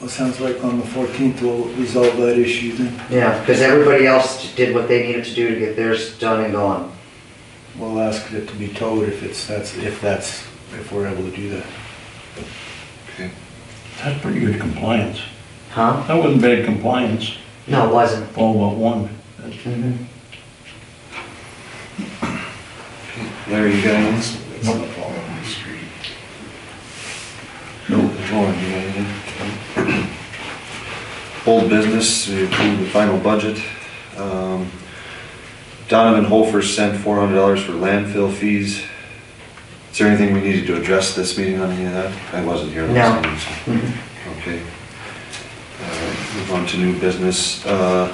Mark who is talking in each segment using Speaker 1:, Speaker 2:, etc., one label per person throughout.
Speaker 1: Well, sounds like on the 14th we'll resolve that issue then.
Speaker 2: Yeah, because everybody else did what they needed to do to get theirs done and gone.
Speaker 1: We'll ask it to be towed if it's, that's, if that's, if we're able to do that.
Speaker 3: Okay.
Speaker 4: That's pretty good compliance.
Speaker 2: Huh?
Speaker 4: That wasn't bad compliance,
Speaker 2: No, it wasn't.
Speaker 4: all but one. That's-
Speaker 2: Mhm.
Speaker 3: Larry, you got anything?
Speaker 4: No. No.
Speaker 3: Lauren, you got anything? Old business, we approved the final budget. Um, Donovan Holfer sent four hundred dollars for landfill fees. Is there anything we needed to address this meeting on any of that? I wasn't here last
Speaker 2: No.
Speaker 3: meeting. so-
Speaker 2: Mhm.
Speaker 3: Okay. Uh, Move on to new business. Uh,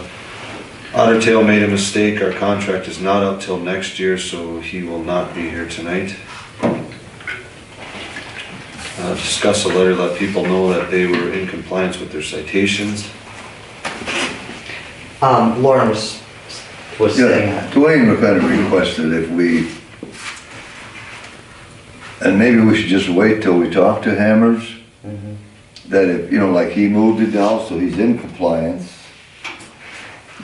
Speaker 3: Otter Tail made a mistake. Our contract is not up till next year, so he will not be here tonight. Uh, Discuss a letter, let people know that they were in compliance with their citations.
Speaker 2: Um, Lauren was, was saying
Speaker 5: Yeah,
Speaker 2: that.
Speaker 5: Dwayne McCutcheon requested if we, and maybe we should just wait till we talk to Hammers,
Speaker 2: Mhm.
Speaker 5: that if, you know, like he moved it now, so he's in compliance,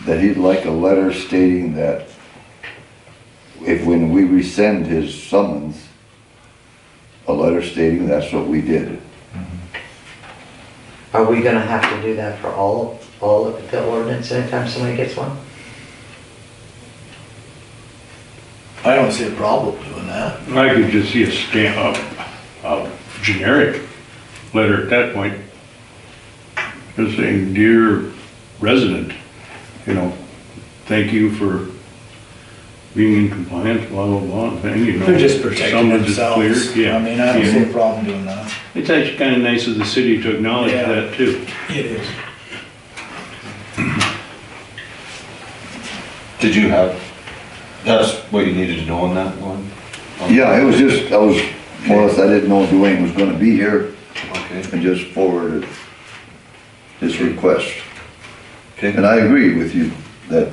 Speaker 5: that he'd like a letter stating that if, when we rescind his summons, a letter stating that's what we did.
Speaker 2: Are we gonna have to do that for all, all of the ordinance anytime somebody gets one?
Speaker 1: I don't see a problem doing that.
Speaker 4: I could just see a stamp, a, a generic letter at that point, just saying, dear resident, you know, thank you for being in compliance, blah, blah, blah, and you know.
Speaker 1: They're just protecting
Speaker 4: someone just
Speaker 1: themselves.
Speaker 4: cleared, Yeah.
Speaker 1: I mean, I don't
Speaker 4: yeah.
Speaker 1: see a problem doing that.
Speaker 4: It's actually kind of nice of the city to acknowledge
Speaker 1: Yeah.
Speaker 4: that too.
Speaker 1: It is.
Speaker 3: Did you have, that's what you needed to know on that one?
Speaker 5: Yeah, it was just, I was, more or less, I didn't know Dwayne was gonna be here,
Speaker 3: Okay,
Speaker 5: and just forwarded his request. And
Speaker 3: okay.
Speaker 5: I agree with you that,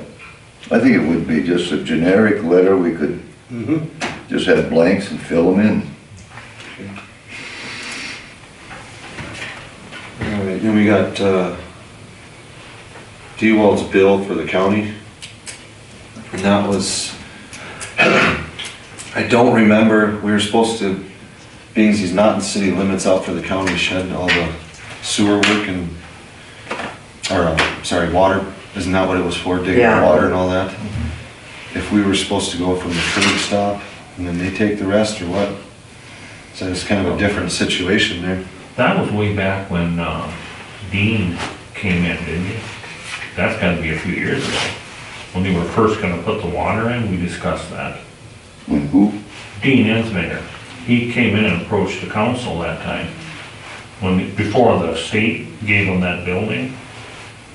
Speaker 5: I think it would be just a generic letter, we could
Speaker 4: Mhm.
Speaker 6: Mm-hmm.
Speaker 5: just have blanks and fill them in.
Speaker 3: All right, Then we got, uh, Dewald's bill for the county. And that was, I don't remember, we were supposed to, being he's not in city limits out for the county shed, and all the sewer work and, or, uh, sorry, water, isn't that what it was for, digging
Speaker 2: Yeah.
Speaker 3: water and all that? If we were supposed to go from the curb stop and then they take the rest or what? So it's kind of a different situation there.
Speaker 6: That was way back when uh, Dean came in, didn't he? That's gotta be a few years ago. When they were first gonna put the water in, we discussed that.
Speaker 5: When who?
Speaker 6: Dean Ensminger, he came in and approached the council that time. When, before the state gave him that building,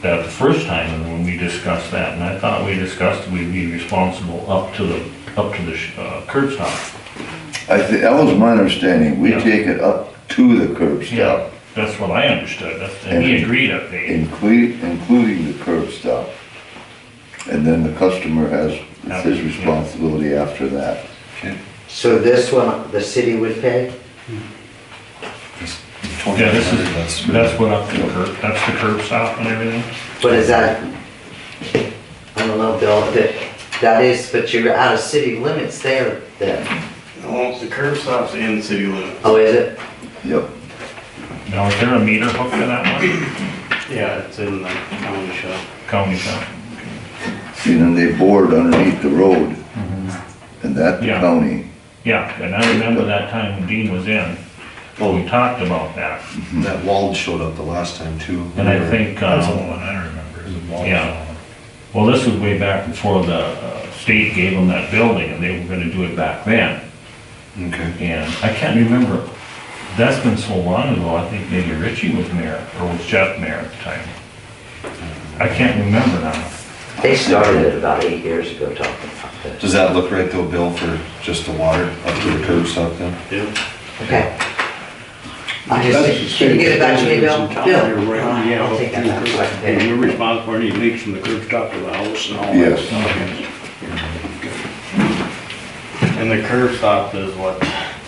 Speaker 6: that the first time, and when we discussed that, and I thought we discussed we'd be responsible up to the, up to the sh- uh, curb stop.
Speaker 5: I think, that was my understanding, we
Speaker 6: Yeah.
Speaker 5: take it up to the curb
Speaker 6: Yeah,
Speaker 5: stop,
Speaker 6: that's what I understood, that's- and he agreed up there.
Speaker 5: including, including the curb stop. And then the customer has, it's his responsibility after that.
Speaker 3: Okay.
Speaker 2: So this one, the city would pay?
Speaker 6: Yeah, this is, that's what up to the
Speaker 5: Yeah.
Speaker 6: curb, that's the curb stop and everything?
Speaker 2: But is that, I don't know, Bill, that, that is, but you're out of city limits there then.
Speaker 7: Well, the curb stop's in city limits.
Speaker 2: Oh, is it?
Speaker 5: Yep.
Speaker 6: Now, is there a meter hooked to that one?
Speaker 7: Yeah, it's in the county shop.
Speaker 6: County shop?
Speaker 5: See, then they board underneath the road, and that the
Speaker 6: Mm-hmm. Yeah.
Speaker 5: county,
Speaker 6: Yeah, and I remember that time when Dean was in, well, we talked about that.
Speaker 3: That Wald showed up the last time too.
Speaker 6: And I think, uh,
Speaker 4: I remember.
Speaker 6: yeah. Well, this was way back before the uh, state gave them that building and they were gonna do it back then.
Speaker 3: Okay.
Speaker 6: And I can't remember, that's been so long ago, I think maybe Richie was mayor, or was Jeff mayor at the time. I can't remember now.
Speaker 2: They started it about eight years ago talking about this.
Speaker 3: Does that look right though, Bill, for just the water up to the curb stop then?
Speaker 7: Yep.
Speaker 2: Okay. I just, can you get it back to me, Bill? Bill? Oh,
Speaker 4: Yeah.
Speaker 2: I'll take that back. so I can
Speaker 4: And
Speaker 2: pay.
Speaker 4: you're responsible for any leaks from the curb stop to the house and all that.
Speaker 5: yes.
Speaker 7: And the curb stop is what,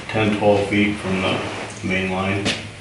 Speaker 7: 10, 12 feet from the main line?